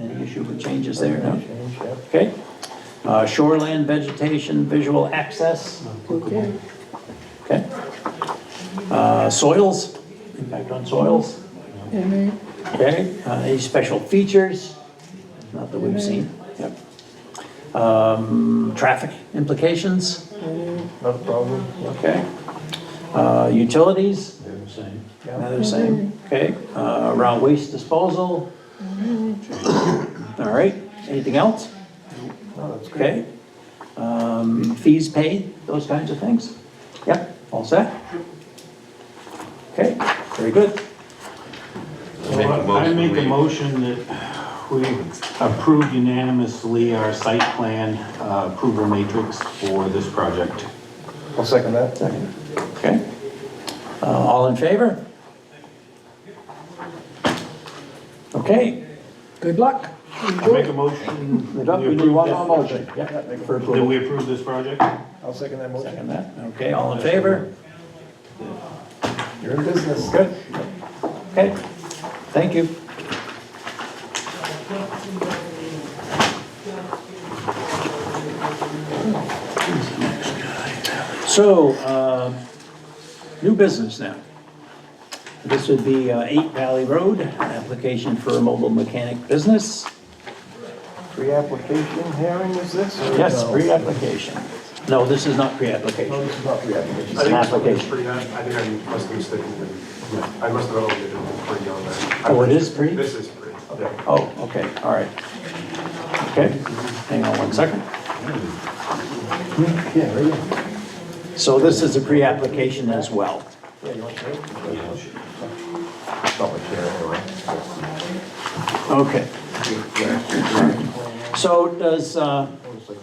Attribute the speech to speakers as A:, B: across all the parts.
A: Any issue with changes there, no? Okay. Uh, Shoreland vegetation, visual access,
B: Okay.
A: okay? Uh, Soils, impact on soils,
B: Any,
A: okay? Uh, Any special features? Not that we've seen, yep. Um, Traffic implications,
C: No problem.
A: okay? Uh, Utilities,
C: They're the same.
A: Another same, okay, uh, around waste disposal.
B: Mm-hmm.
A: All right, anything else?
C: No, that's good.
A: Okay. Um, fees paid, those kinds of things? Yep, all set? Okay, very good.
D: Make a
E: I
D: motion,
E: make
D: we-
E: a motion that we approve unanimously our site plan uh, approval matrix for this project.
C: I'll second that. Second.
A: Okay. Uh, all in favor? Okay,
B: good luck.
E: I make a motion.
A: we do
E: we approve
A: one
E: this-
A: more motion. Yep, for
E: That
A: approval.
E: we approve this project?
C: I'll second that motion.
A: Second that, okay, all in favor?
C: You're in business.
A: Good. Okay, thank you. So, uh, new business now. This would be uh, 8 Valley Road, application for a mobile mechanic business.
C: Pre-application hearing is this? or
A: Yes,
C: no?
A: pre-application. No, this is not
C: No,
A: pre-application,
C: this is not pre-application.
A: it's an
F: It's
A: application.
F: pretty, I I think I must have mistaken, I must have overlooked it, it's pretty on there.
A: Oh, it is pre?
F: This is pretty, yeah.
A: Oh, okay, all right. Okay, hang on one second.
C: Yeah, right here.
A: So this is a pre-application as well.
C: Yeah, you want to? Public hearing, all right.
A: Okay. So does uh,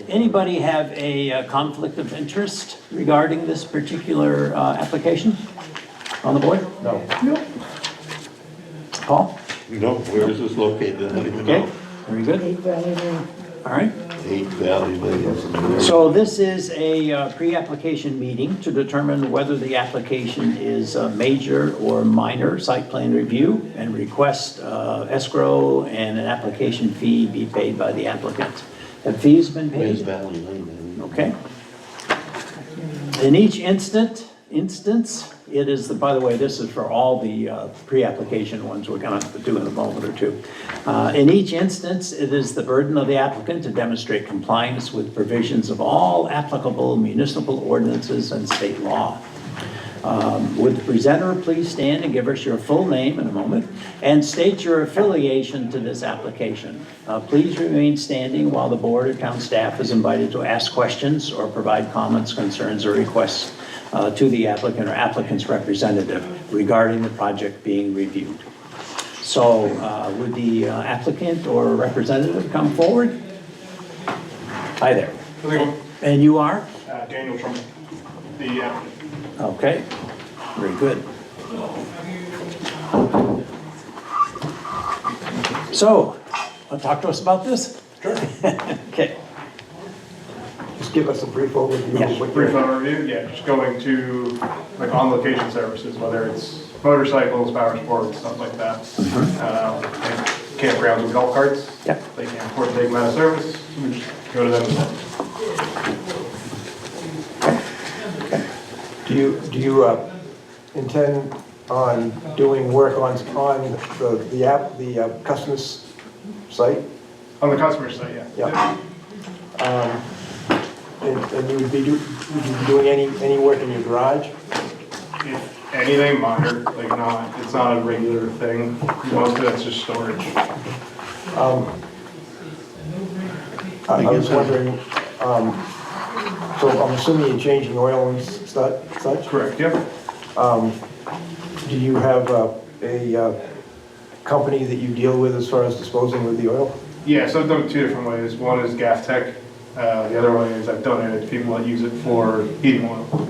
A: anybody have a uh, conflict of interest regarding this particular uh, application on the board?
C: No.
A: Paul?
D: No, where is this located? I don't even
A: Okay,
D: know.
A: very good. All right.
D: Eight Valley Lane.
A: So this is a uh, pre-application meeting to determine whether the application is a major or minor site plan review and request uh, escrow and an application fee be paid by the applicant. Have fees been
D: Where's
A: paid?
D: Valley Lane?
A: Okay. In each instant, instance, it is, the. by the way, this is for all the uh, pre-application ones we're going to do in a moment or two. Uh, In each instance, it is the burden of the applicant to demonstrate compliance with provisions of all applicable municipal ordinances and state law. Um, Would the presenter please stand and give us your full name in a moment, and state your affiliation to this application? Uh, Please remain standing while the board or town staff is invited to ask questions or provide comments, concerns, or requests uh, to the applicant or applicant's representative regarding the project being reviewed. So uh, would the uh, applicant or representative come forward? Hi there.
F: Hello.
A: And you are?
F: Uh, Daniel from the, uh,
A: Okay, very good. So, want to talk to us about this? Sure. Okay,
C: Just give us a brief overview.
A: Yeah,
C: of what
F: brief
C: you're-
F: overview, yeah, just going to, like, on-location services, whether it's motorcycles, power sports, stuff like that. Uh, and Campgrounds and golf carts.
A: Yep.
F: They can't afford to take them out of service, we just go to them.
C: Do you, do you uh, intend on doing work on, on the, the app, the uh, customer's site?
F: On the customer side, yeah.
C: Yeah. Um, And and you would be, do- would you be doing any, any work in your garage?
F: If anything minor, like not, it's not a regular thing, most of it's just storage.
C: I I was wondering, um, so I'm assuming you're changing oil and s- stu- such?
F: Correct, yep.
C: Do you have uh, a uh, company that you deal with as far as disposing of the oil?
F: Yeah, so I've done it two different ways. One is Gaff Tech, uh, the other one is I've donated to people that use it for heating oil.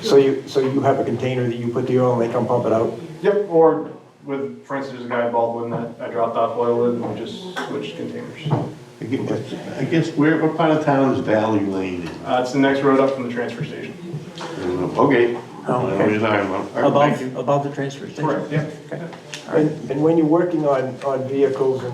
C: So you, so you have a container that you put the oil and they come pump it out?
F: Yep, or with, for instance, there's a guy in Baldwin that I dropped off oil with and we just switched containers. Uh,
D: I guess- I guess, where, what part of town is Valley Lane in?
F: Uh, it's the next road up from the transfer station.
D: I don't know. Oh, Okay. I don't know what you're talking about. All right, thank you.
A: above, above the transfer station?
F: Correct, yeah.
C: And, and when you're working on, on vehicles and